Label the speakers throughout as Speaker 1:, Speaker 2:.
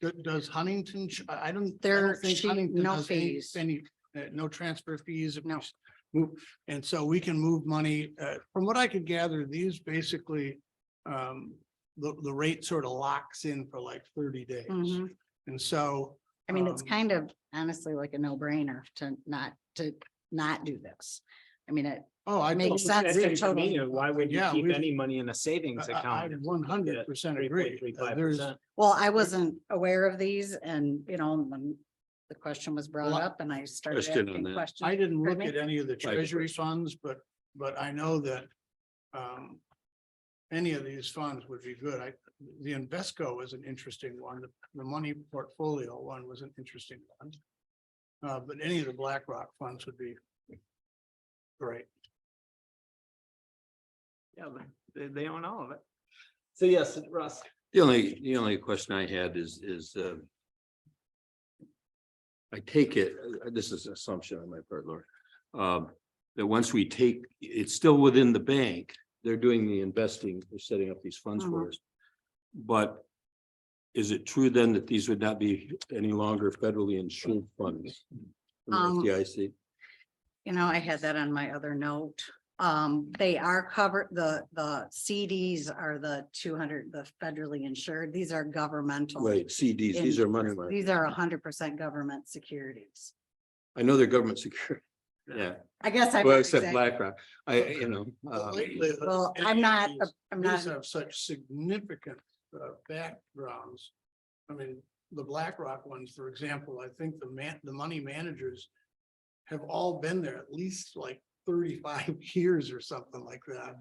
Speaker 1: Do- Does Huntington, ch- I I don't. I don't
Speaker 2: There-
Speaker 1: think
Speaker 2: she-
Speaker 1: Huntington
Speaker 2: no
Speaker 1: has any-
Speaker 2: fees.
Speaker 1: Any, uh, no transfer fees. if we
Speaker 2: No.
Speaker 1: s- Move, and so we can move money, uh, from what I could gather, these basically, um, the, the rate sort of locks in for like thirty days.
Speaker 2: Mhm.
Speaker 1: And so,
Speaker 2: I mean, it's
Speaker 1: Um,
Speaker 2: kind of honestly like a no brainer to not, to not do this. I mean, it,
Speaker 1: oh, I.
Speaker 2: Makes
Speaker 1: totally
Speaker 2: sense.
Speaker 1: agree.
Speaker 2: It's totally-
Speaker 3: uh, Why would you
Speaker 1: Yeah,
Speaker 3: keep
Speaker 1: we-
Speaker 3: any money in a savings
Speaker 1: I- I
Speaker 3: account?
Speaker 1: one hundred percent agree. Uh, There's,
Speaker 3: 3.35%.
Speaker 2: well, I wasn't aware of these and, you know, when the question was brought
Speaker 1: Well, I-
Speaker 2: up and I started
Speaker 4: Question on
Speaker 2: asking
Speaker 4: that.
Speaker 1: I
Speaker 2: questions.
Speaker 1: didn't look
Speaker 2: Pardon
Speaker 1: at
Speaker 2: me?
Speaker 1: any of the
Speaker 4: Five
Speaker 1: treasury funds, but, but I know that, um, any of these funds would be good. I, the Invesco is an interesting one. The- The money portfolio one was an interesting one. Uh, but any of the BlackRock funds would be great.
Speaker 3: Yeah, they, they own all of it. So yes, Russ.
Speaker 4: The only, the only question I had is, is, uh. I take it, uh, this is an assumption on my part, Laura, um, that once we take, it's still within the bank, they're doing the investing, they're setting up these funds for us. But is it true then that these would not be any longer federally insured funds?
Speaker 2: Um,
Speaker 4: Yeah, I see.
Speaker 2: You know, I had that on my other note. Um, they are covered, the, the CDs are the two hundred, the federally insured. These are governmental.
Speaker 4: Right, CDs, these are money
Speaker 2: insurance.
Speaker 4: market.
Speaker 2: These are hundred percent government securities.
Speaker 4: I know they're government secure. Yeah,
Speaker 2: I guess I.
Speaker 4: well,
Speaker 2: exact-
Speaker 4: except BlackRock, I, you know. um,
Speaker 2: Well, I'm not,
Speaker 1: These-
Speaker 2: a- I'm
Speaker 1: These
Speaker 2: not,
Speaker 1: have such significant uh, backgrounds. I mean, the BlackRock ones, for example, I think the man, the money managers have all been there at least like thirty-five years or something like that.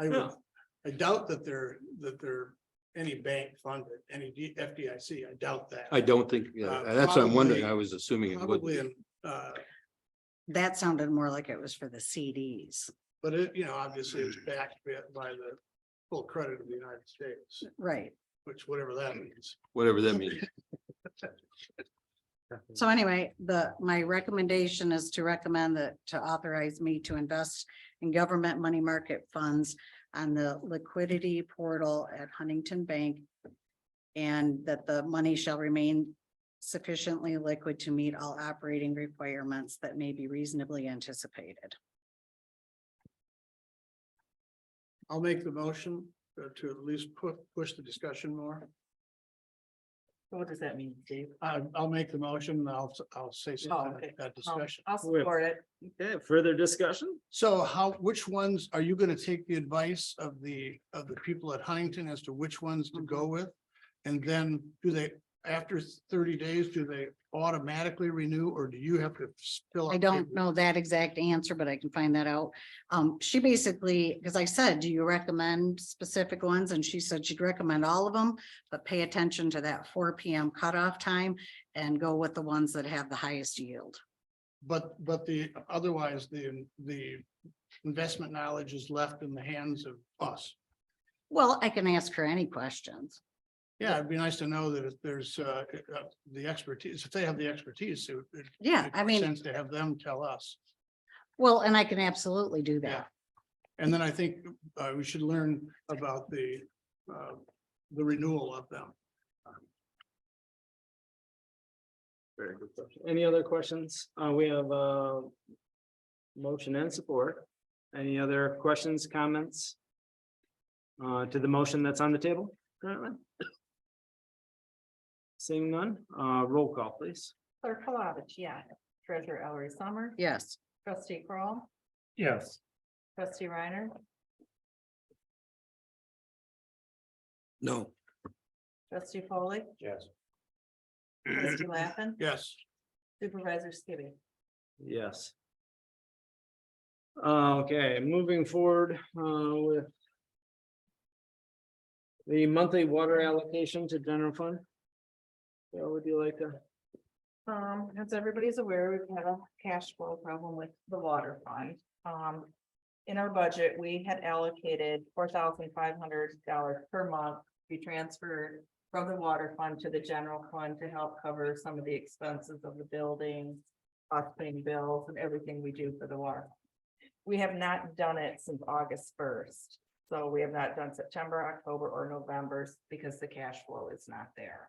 Speaker 1: I would,
Speaker 3: Yeah.
Speaker 1: I doubt that they're, that they're any bank funded, any D- FDIC, I doubt that.
Speaker 4: I don't think, yeah,
Speaker 1: Uh,
Speaker 4: that's what I'm wondering.
Speaker 1: probably-
Speaker 4: I was assuming it would.
Speaker 1: Probably, in, uh,
Speaker 2: that sounded more like it was for the CDs.
Speaker 1: but it, you know, obviously it's backed by the full credit of the United States,
Speaker 2: Right.
Speaker 1: which whatever that means.
Speaker 4: whatever that means.
Speaker 2: So anyway, the, my recommendation is to recommend that, to authorize me to invest in government money market funds on the liquidity portal at Huntington Bank. And that the money shall remain sufficiently liquid to meet all operating requirements that may be reasonably anticipated.
Speaker 1: I'll make the motion uh, to at least pu- push the discussion more.
Speaker 5: What does that mean, Dave?
Speaker 1: I, I'll make the motion, and I'll, I'll say
Speaker 5: Oh,
Speaker 1: something
Speaker 5: okay.
Speaker 1: at that
Speaker 5: Um,
Speaker 1: discussion.
Speaker 5: I'll support it.
Speaker 3: Okay, further discussion?
Speaker 1: So how, which ones, are you gonna take the advice of the, of the people at Huntington as to which ones to go with? And then do they, after thirty days, do they automatically renew or do you have to fill? out
Speaker 2: I don't
Speaker 1: paperwork?
Speaker 2: know that exact answer, but I can find that out. Um, she basically, because I said, do you recommend specific ones? And she said she'd recommend all of them, but pay attention to that four P M cutoff time and go with the ones that have the highest yield.
Speaker 1: But, but the, otherwise, the, the investment knowledge is left in the hands of us.
Speaker 2: Well, I can ask her any questions.
Speaker 1: Yeah, it'd be nice to know that if there's uh uh, the expertise, if they have the expertise, it would. it'd
Speaker 2: Yeah,
Speaker 1: make
Speaker 2: I
Speaker 1: more
Speaker 2: mean,
Speaker 1: Sense to have them tell us.
Speaker 2: well, and I can absolutely do
Speaker 1: Yeah.
Speaker 2: that.
Speaker 1: And then I think uh we should learn about the uh the renewal of them.
Speaker 3: Very good question. Any other questions? Uh, we have, uh. Motion and support. Any other questions, comments? Uh, to the motion that's on the table currently? Seeing none, uh, roll call, please.
Speaker 5: Clerk Palovich, yeah. Treasurer Ellery Summers.
Speaker 2: Yes.
Speaker 5: Trustee Crawl,
Speaker 3: Yes.
Speaker 5: trustee Reiner,
Speaker 4: No.
Speaker 5: trustee Foley,
Speaker 3: Yes.
Speaker 5: trustee Lappin,
Speaker 1: Yes,
Speaker 5: supervisor Skibby.
Speaker 3: Yes. Okay, moving forward uh, with the monthly water allocation to general fund. Yeah, would you like to?
Speaker 5: Um, as everybody's aware, we've had a cash flow problem with the water fund. Um, in our budget, we had allocated four thousand five hundred dollars per month. to be transferred from the water fund to the general fund to help cover some of the expenses of the building, us paying bills and everything we do for the water. We have not done it since August first, so we have not done September, October, or November because the cash flow is not there.